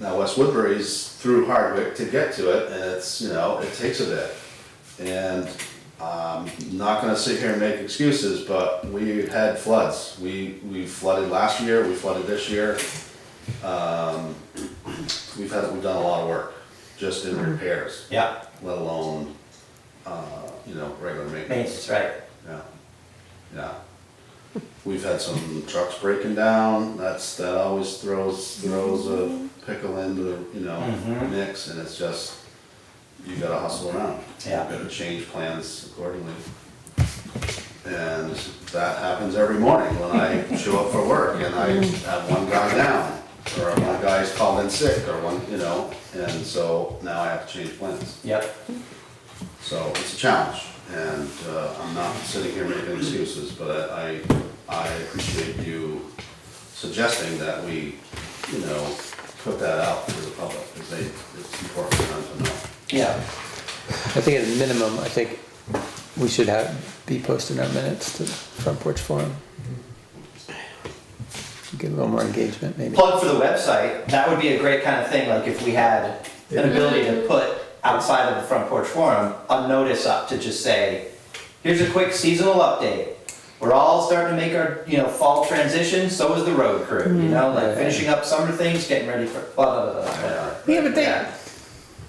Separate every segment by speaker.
Speaker 1: West Woodbury's through Hardwick to get to it, and it's, you know, it takes a bit. And I'm not gonna sit here and make excuses, but we had floods. We, we flooded last year, we flooded this year. Um, We've had, we've done a lot of work, just in repairs,
Speaker 2: Yeah,
Speaker 1: let alone, uh, you know, regular maintenance.
Speaker 2: maintenance, right.
Speaker 1: Yeah, yeah. We've had some trucks breaking down, that's, that always throws, throws a pickle into the, you know,
Speaker 2: Mhm.
Speaker 1: mix, and it's just, you gotta hustle around.
Speaker 2: Yeah.
Speaker 1: You gotta change plans accordingly. And that happens every morning when I show up for work and I have one guy down, or one guy's called in sick, or one, you know, and so now I have to change plans.
Speaker 2: Yep,
Speaker 1: So it's a challenge, and uh, I'm not sitting here making excuses, but I, I appreciate you suggesting that we, you know, put that out to the public, because they, it's important for them to know.
Speaker 2: yeah,
Speaker 3: I think at a minimum, I think we should have, be posting our minutes to the Front Porch Forum. Get a little more engagement, maybe.
Speaker 2: plug for the website, that would be a great kind of thing, like if we had an ability to put outside of the front porch forum, a notice up to just say, here's a quick seasonal update. We're all starting to make our, you know, fall transition, so is the road crew, you know, like finishing up summer things, getting ready for blah, blah, blah, blah, whatever.
Speaker 4: Yeah, but they,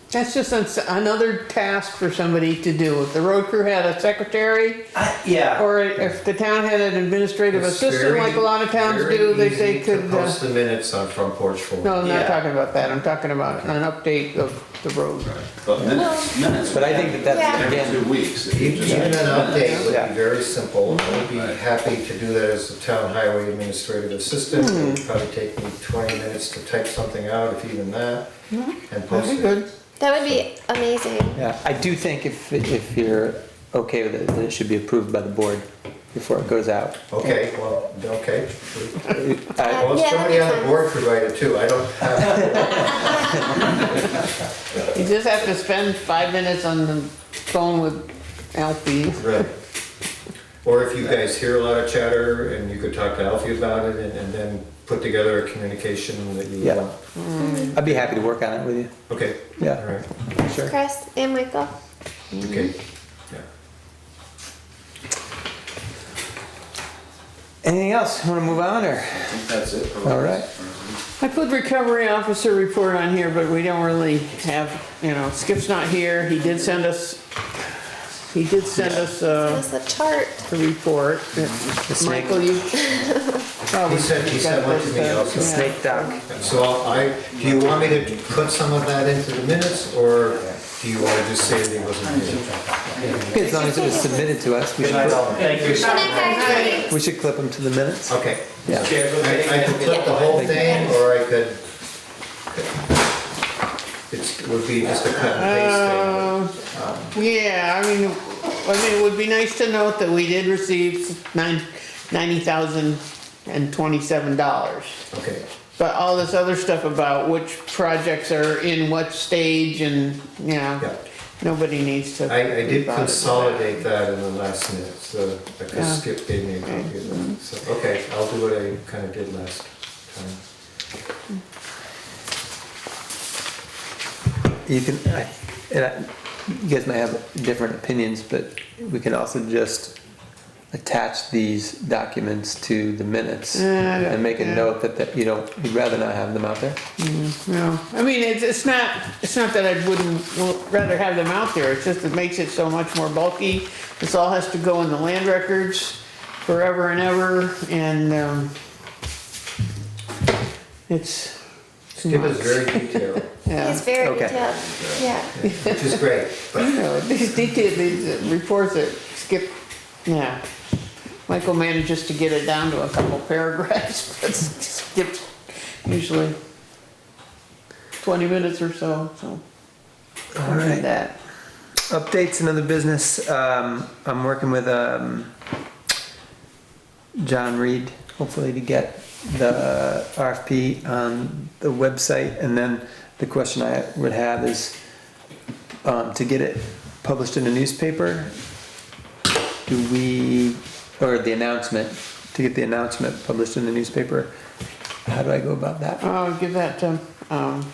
Speaker 4: that's just ans- another task for somebody to do. If the road crew had a secretary,
Speaker 2: I- Yeah,
Speaker 4: or if the town had an administrative
Speaker 5: It's
Speaker 4: assistant,
Speaker 5: very-
Speaker 4: like a lot of towns
Speaker 5: very
Speaker 4: do, they,
Speaker 5: easy
Speaker 4: they
Speaker 5: to
Speaker 4: could, uh,
Speaker 5: Post the minutes on front porch forum.
Speaker 4: no, I'm
Speaker 2: Yeah.
Speaker 4: not talking about that. I'm talking about an update of the road.
Speaker 1: But minutes, minutes.
Speaker 3: But I think that that's,
Speaker 1: Every
Speaker 3: again,
Speaker 1: two weeks. if you
Speaker 5: Even
Speaker 1: just-
Speaker 5: an update would
Speaker 3: Yeah.
Speaker 5: be very simple, I would be happy to do that as the town highway administrative assistant. It would probably take me twenty minutes to type something out, if even that, and post
Speaker 4: That'd be
Speaker 5: it.
Speaker 4: Mm-hmm. good.
Speaker 6: That would be amazing.
Speaker 3: yeah, I do think if, if you're okay with it, that it should be approved by the board before it goes out.
Speaker 5: Okay, well, okay.
Speaker 3: I-
Speaker 5: Well,
Speaker 6: Yeah, that'd
Speaker 5: somebody
Speaker 6: be
Speaker 5: on the
Speaker 6: fun.
Speaker 5: board could write it too, I don't have,
Speaker 4: You just have to spend five minutes on the phone with Alfie.
Speaker 5: right. Or if you guys hear a lot of chatter and you could talk to Alfie about it and and then put together a communication that you
Speaker 3: Yeah.
Speaker 5: want.
Speaker 3: I'd be happy to work on it with you,
Speaker 5: Okay.
Speaker 3: Yeah.
Speaker 5: All right,
Speaker 3: sure.
Speaker 6: Chris and Michael.
Speaker 5: okay, yeah.
Speaker 3: Anything else? Wanna move on or?
Speaker 1: I think that's it. for
Speaker 3: All right.
Speaker 4: I put recovery officer report on here, but we don't really have, you know, Skip's not here. He did send us, he did send us, uh,
Speaker 6: That's the chart.
Speaker 4: the report. Michael, you.
Speaker 5: He sent, he sent one to me also.
Speaker 3: Snake doc.
Speaker 5: So I, do you want me to put some of that into the minutes, or do you want to just say that he wasn't here?
Speaker 3: As long as it was submitted to us, we
Speaker 2: good night,
Speaker 3: should,
Speaker 2: all, thank you.
Speaker 6: Good night, guys.
Speaker 3: we should clip them to the minutes.
Speaker 5: Okay.
Speaker 3: Yeah.
Speaker 5: I I could clip the whole thing, or I could, it's, it would be just a cut and
Speaker 4: Uh, Yeah, I mean, I mean, it would be nice to note that we did receive nine, ninety thousand and twenty-seven dollars.
Speaker 5: paste thing. Okay,
Speaker 4: But all this other stuff about which projects are in what stage and, you
Speaker 5: Yeah.
Speaker 4: know, nobody needs to.
Speaker 5: I, I
Speaker 4: be
Speaker 5: did
Speaker 4: bothered.
Speaker 5: consolidate that in the last minute, so, because Skip gave me a copy of that, so, okay, I'll do what I kind of did last time.
Speaker 3: You can, I, and I, you guys might have different opinions, but we can also just attach these documents to the minutes
Speaker 4: Yeah, yeah,
Speaker 3: and make a
Speaker 4: yeah.
Speaker 3: note that, that, you know, you'd rather not have them out there.
Speaker 4: No, I mean, it's, it's not, it's not that I wouldn't w- rather have them out there, it's just it makes it so much more bulky. This all has to go in the land records forever and ever, and, um, it's,
Speaker 5: Skip is very detailed,
Speaker 4: yeah.
Speaker 6: He's very
Speaker 3: Okay.
Speaker 6: detailed. Yeah.
Speaker 5: which is great, but
Speaker 4: You know, these detailed, these reports that skip, yeah. Michael manages to get it down to a couple paragraphs, but skips usually twenty minutes or so, so.
Speaker 3: All right.
Speaker 4: That.
Speaker 3: Updates and other business, um, I'm working with, um, John Reed, hopefully to get the RFP on the website, and then the question I would have is, um, to get it published in a newspaper, do we, or the announcement, to get the announcement published in the newspaper, how do I go about that?
Speaker 4: Oh, give that to, um,